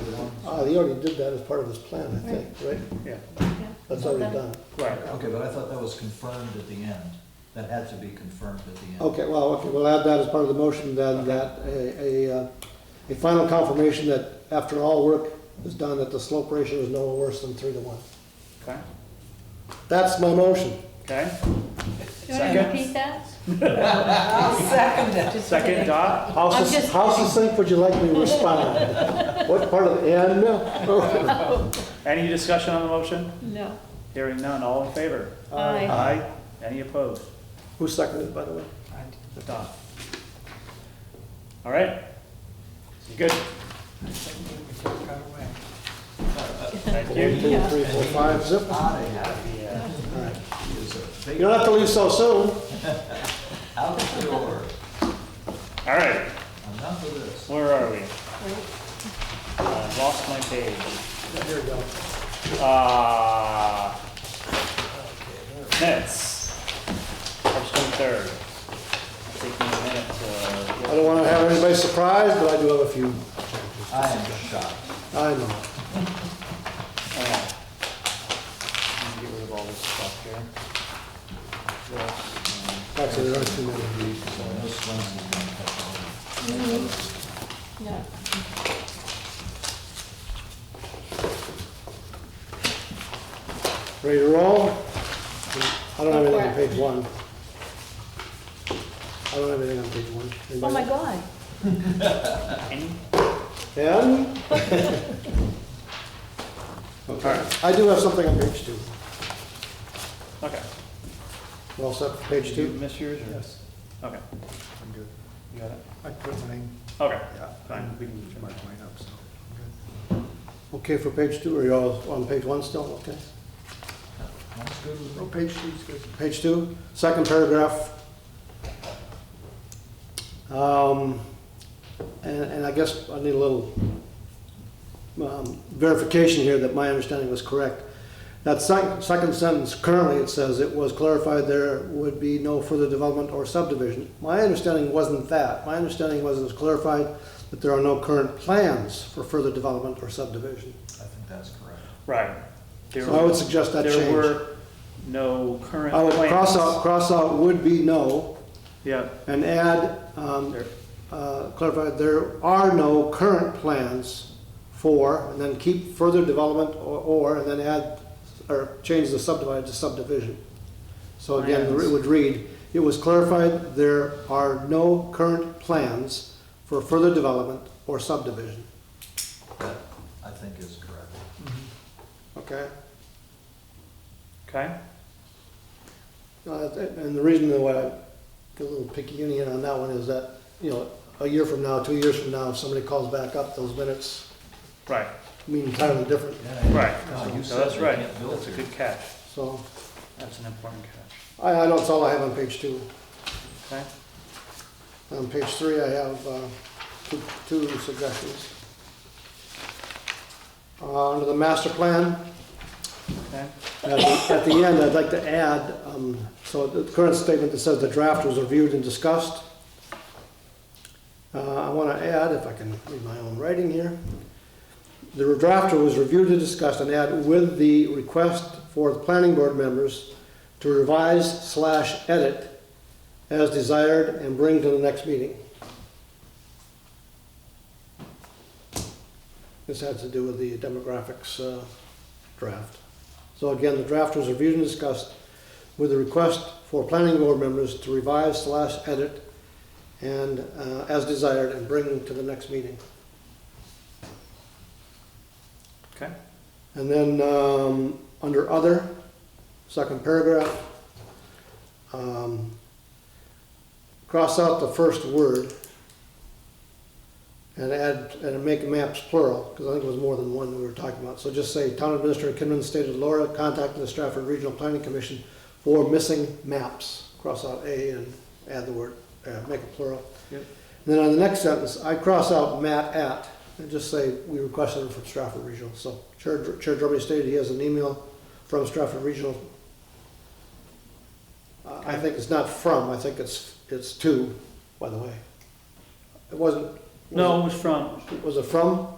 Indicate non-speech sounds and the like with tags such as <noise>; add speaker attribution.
Speaker 1: he already Ah, did that as part of his plan, I think, right?
Speaker 2: Yeah,
Speaker 1: That's already done.
Speaker 2: right.
Speaker 3: Okay, but I thought that was confirmed at the end. That had to be confirmed at the end.
Speaker 1: Okay, well, okay, we'll add that as part of the motion, then, that a, a, uh, a final confirmation that after all work is done, that the slope ratio is no worse than three to one.
Speaker 2: Okay,
Speaker 1: That's my motion.
Speaker 2: okay.
Speaker 4: Do you want to
Speaker 2: Second.
Speaker 4: repeat that?
Speaker 5: I'll second it.
Speaker 2: Second dot,
Speaker 1: How
Speaker 4: I'm
Speaker 1: sus-
Speaker 4: just-
Speaker 1: how succinct would you like <laughs> me to respond? What part of, and?
Speaker 2: any discussion on the motion?
Speaker 4: No.
Speaker 2: Hearing none, all in favor?
Speaker 4: Aye.
Speaker 2: Aye. Any opposed?
Speaker 1: <laughs> Who seconded, it, by the way?
Speaker 2: Done. All right. You good? Thank
Speaker 1: One,
Speaker 2: you.
Speaker 1: two, three, four, five, zip.
Speaker 3: Out of here.
Speaker 2: Yeah.
Speaker 3: Is a
Speaker 1: You
Speaker 3: big
Speaker 1: don't have to leave so soon.
Speaker 3: out the door.
Speaker 2: All right,
Speaker 3: Enough of this.
Speaker 2: where are we? I lost my page.
Speaker 1: Here we go.
Speaker 2: Uh, minutes. March twenty-third. Taking a minute to.
Speaker 1: I don't want to have anybody surprised, but I do have a few.
Speaker 3: I am shocked.
Speaker 1: I know.
Speaker 2: Hang on. I'm gonna get rid of all this stuff here.
Speaker 1: Actually, there are too many.
Speaker 3: So this one's the one that-
Speaker 4: No.
Speaker 1: Ready to roll? I don't have
Speaker 4: Go
Speaker 1: anything
Speaker 4: for
Speaker 1: on
Speaker 4: it.
Speaker 1: page one. I don't have anything on page one.
Speaker 4: Oh, my
Speaker 1: Anybody?
Speaker 4: God.
Speaker 2: Any?
Speaker 1: And? <laughs> Okay, I do have something on page two.
Speaker 2: Okay.
Speaker 1: Well, set for page
Speaker 2: Did you
Speaker 1: two?
Speaker 2: miss yours or? Okay,
Speaker 6: I'm good.
Speaker 2: you got it?
Speaker 6: I put mine,
Speaker 2: Okay,
Speaker 6: yeah,
Speaker 2: fine, we can.
Speaker 6: I marked mine up, so I'm good.
Speaker 1: Okay, for page two, are you all on page one still? Okay.
Speaker 3: That's good with me.
Speaker 6: Oh, page two's good.
Speaker 1: Page two, second paragraph. Um, And, and I guess I need a little um, verification here that my understanding was correct. That sec- second sentence, currently it says it was clarified there would be no further development or subdivision. My understanding wasn't that. My understanding was it was clarified that there are no current plans for further development or subdivision.
Speaker 3: I think that's correct.
Speaker 2: Right. There
Speaker 1: So I would
Speaker 2: were-
Speaker 1: suggest that
Speaker 2: There
Speaker 1: change.
Speaker 2: were no current
Speaker 1: I would cross out,
Speaker 2: plans.
Speaker 1: cross out would be no,
Speaker 2: Yeah,
Speaker 1: And add, um,
Speaker 2: there,
Speaker 1: uh, clarify, there are no current plans for, and then keep further development or, or, and then add, or change the subdivided to subdivision. So again, it would read, it was clarified, there are no current plans for further development or subdivision.
Speaker 3: That, I think is correct.
Speaker 1: Okay?
Speaker 2: okay,
Speaker 1: Uh, And the reason that I get a little picky union on that one is that, you know, a year from now, two years from now, if somebody calls back up, those minutes
Speaker 2: right,
Speaker 1: mean entirely different.
Speaker 3: Yeah, yeah.
Speaker 2: Right.
Speaker 3: No, you
Speaker 2: So
Speaker 3: said
Speaker 2: that's
Speaker 3: they
Speaker 2: right.
Speaker 3: can't build
Speaker 2: that's a
Speaker 3: here.
Speaker 2: good catch,
Speaker 1: So,
Speaker 2: that's an important catch,
Speaker 1: I, I know it's all I have on page two.
Speaker 2: okay?
Speaker 1: On page three, I have, uh, two, two suggestions. Uh, under the master plan,
Speaker 2: Okay,
Speaker 1: at the, at the end, I'd like to add, um, so the current statement that says the draft was reviewed and discussed. Uh, I wanna add, if I can read my own writing here, the draft was reviewed and discussed and add with the request for the planning board members to revise slash edit as desired and bring to the next meeting. This has to do with the demographics, uh, draft. So again, the draft was reviewed and discussed with a request for planning board members to revise slash edit and, uh, as desired, and bring to the next meeting.
Speaker 2: okay,
Speaker 1: And then, um, under other, second paragraph, um, cross out the first word and add, and make maps plural, because I think it was more than one we were talking about. So just say, Town Administrator Kinman stated Laura contacted the Stratford Regional Planning Commission for missing maps. Cross out A and add the word, uh, make it plural.
Speaker 2: Yep.
Speaker 1: Then on the next sentence, I cross out Matt at and just say, we requested it from Stratford Regional. So Chair, Chair Drummond stated he has an email from Stratford Regional. Uh, I think it's not from, I think it's, it's to, by the way. It wasn't. was it-
Speaker 2: no, it was from,
Speaker 1: was it from?